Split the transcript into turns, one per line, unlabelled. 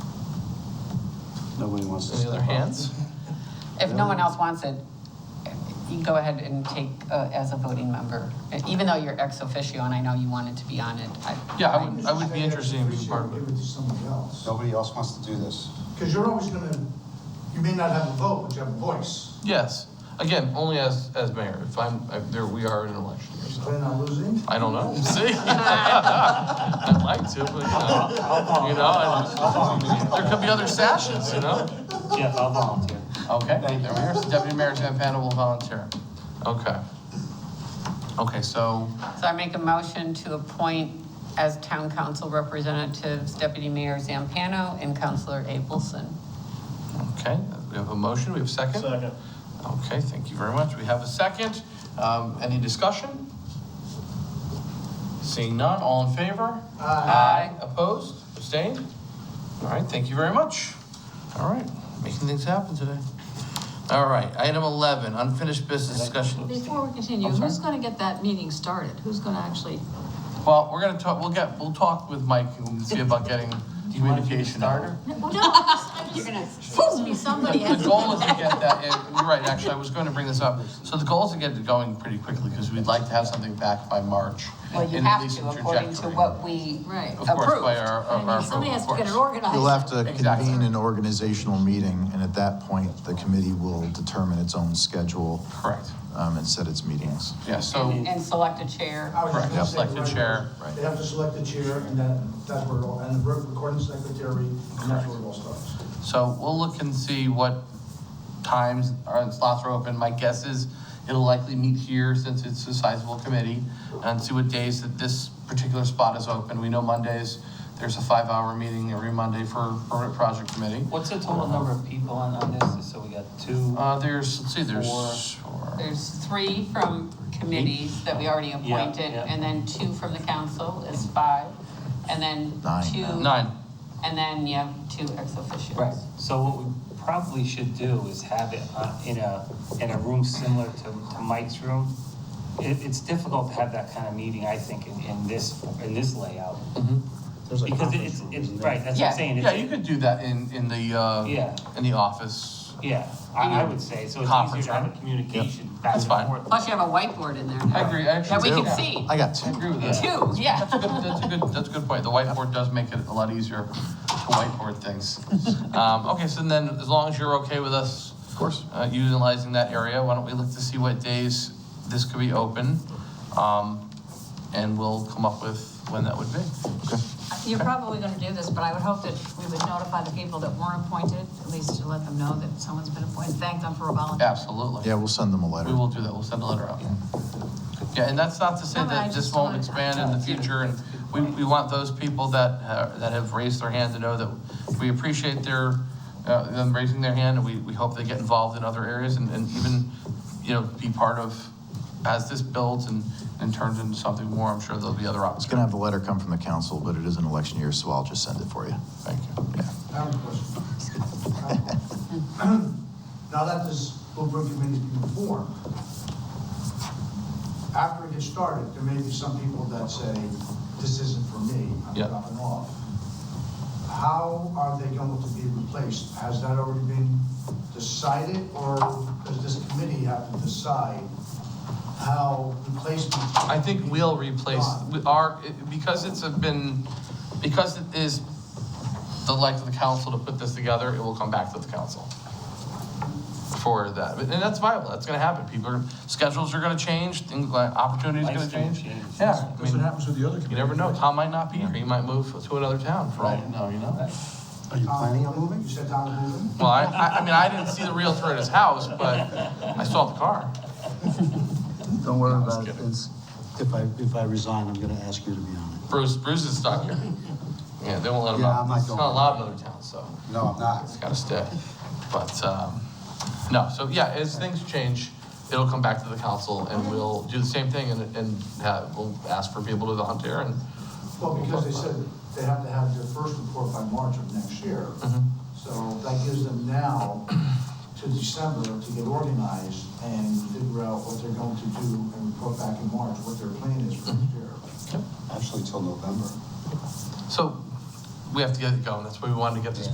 Nobody wants to
Any
step
other
up.
hands?
If no one else wants it, you go ahead and take uh, as a voting member, even though you're ex officio and I know you wanted to be on it. I-
Yeah, I would, I would be interested in being part of
Give
it.
it to somebody else.
Nobody else wants to do this.
Because you're always gonna, you may not have a vote, but you have a voice.
Yes, again, only as, as mayor, if I'm, if there, we are in an election year,
You
so.
plan on losing?
I don't know, see? I'd like to, but, you know, you know, I- there could be other sashes, you know?
Yes, I'll volunteer.
Okay, there
Thank
we
you.
are. So Deputy Mayor Sam Panda will volunteer. Okay. Okay, so,
So I make a motion to appoint as town council representatives Deputy Mayor Zampano and Councilor Abelson.
okay, we have a motion, we have a second?
Second.
Okay, thank you very much. We have a second. Um, Any discussion? Seeing none, all in favor?
Aye.
Opposed, abstained? All right, thank you very much. All right, making things happen today. All right, item 11, unfinished business discussion.
Before we continue,
I'm sorry?
who's gonna get that meeting started? Who's gonna actually,
Well, we're gonna talk, we'll get, we'll talk with Mike and see about getting communication out.
well, no, you're gonna, supposed to be somebody.
The goal is to get that, in- you're right, actually, I was going to bring this up. So the goal is to get it going pretty quickly because we'd like to have something back by March.
Well, you
and at
have
least
to,
a
according to
trajectory.
what we
Right.
Of course, by
approved.
our,
I
of our.
mean, somebody has to get it
of course.
organized.
You'll have to
Exactly.
convene an organizational meeting, and at that point, the committee will determine its own schedule
Correct,
um, and set its meetings.
yeah, so,
and select a chair.
I was just
Correct,
gonna say,
select the
right,
chair, right.
They have to select the chair, and then that's where it all, and the re- recording secretary, and that's where it all starts.
so we'll look and see what times our slots are open. My guess is it'll likely meet here since it's a sizable committee and see what days that this particular spot is open. We know Mondays, there's a five-hour meeting every Monday for, for a project committee.
What's the total number of people on, on this? Just So we got two.
Uh, there's, let's see,
Four.
there's four.
There's three from committees that we already appointed,
yeah.
and then two from the council is five, and then
Nine.
two.
Nine,
And then you have two ex officios.
Right, so what we probably should do is have it uh, in a, in a room similar to, to Mike's room. It, it's difficult to have that kind of meeting, I think, in, in this, in this layout.
There's a
Because
conference
it's,
room,
it's,
isn't there?
right, that's what
Yeah.
I'm saying.
yeah, you could do that in, in the, uh,
Yeah.
in the office.
Yeah, I, I would say, so it's
Conference
easier to have
room.
a communication back
That's
and
fine.
forth.
Plus you have a whiteboard in there now.
I agree, I actually.
That we
do.
can see.
I got
I
two.
agree with that.
Two,
That's a
yeah.
good, that's a good, that's a good point. The whiteboard does make it a lot easier to whiteboard things. Um, okay, so then as long as you're okay with us
Of course.
uh, utilizing that area, why don't we look to see what days this could be open? Um, and we'll come up with when that would be.
You're probably gonna do this, but I would hope that we would notify the people that weren't appointed, at least to let them know that someone's been appointed, thank them for a volunteer.
Absolutely.
Yeah, we'll send them a
We
letter.
will do that. We'll send a letter out. Yeah, and that's not to say
No, but
that
I
this
just
won't
wanted-
expand in the future, and we, we want those people that, uh, that have raised their hand to know that we appreciate their, uh, them raising their hand, and we, we hope they get involved in other areas and, and even, you know, be part of, as this builds and, and turns into something more, I'm sure there'll be other
It's going
opportunities.
to have the letter come from the council, but it is an election year, so I'll just send it for you.
Thank you.
Yeah.
I have a question. Now that this Bluebird Committee's been formed, after it gets started, there may be some people that say, this isn't for me, I'm
Yeah.
dropping off. How are they going to be replaced? Has that already been decided, or does this committee have to decide how replacements?
I think we'll replace, we- our, because it's a been, because it is the life of the council to put this together, it will come back to the council for that. And that's viable, that's gonna happen. People are, schedules are gonna change, things like, opportunities are gonna
Life's gonna
change.
change.
Yeah, I
That's
mean,
happens with the other
you never know, Tom might not be here, he might move to another town for all you know, you know?
Are you planning on moving?
You said Don Blumen?
Well, I, I, I mean, I didn't see the realtor at his house, but I saw the car.
Don't worry about it. It's, if I, if I resign, I'm gonna ask you to be on
Bruce, Bruce is stuck here. Yeah, they won't let him
Yeah,
out.
I'm not
It's
going.
not allowed in other towns, so.
it. No, I'm not.
It's gotta stay. But, um, no, so yeah, as things change, it'll come back to the council and
Mm-hmm.
we'll do the same thing and, and have, we'll ask for people to volunteer and,
Well, because they said they have to have their first report by March of next year. So that gives them now to December to get organized and figure out what they're going to do and report back in March, what their plan is for next year.
Actually, till November.
so we have to get it going. That's why we wanted to get this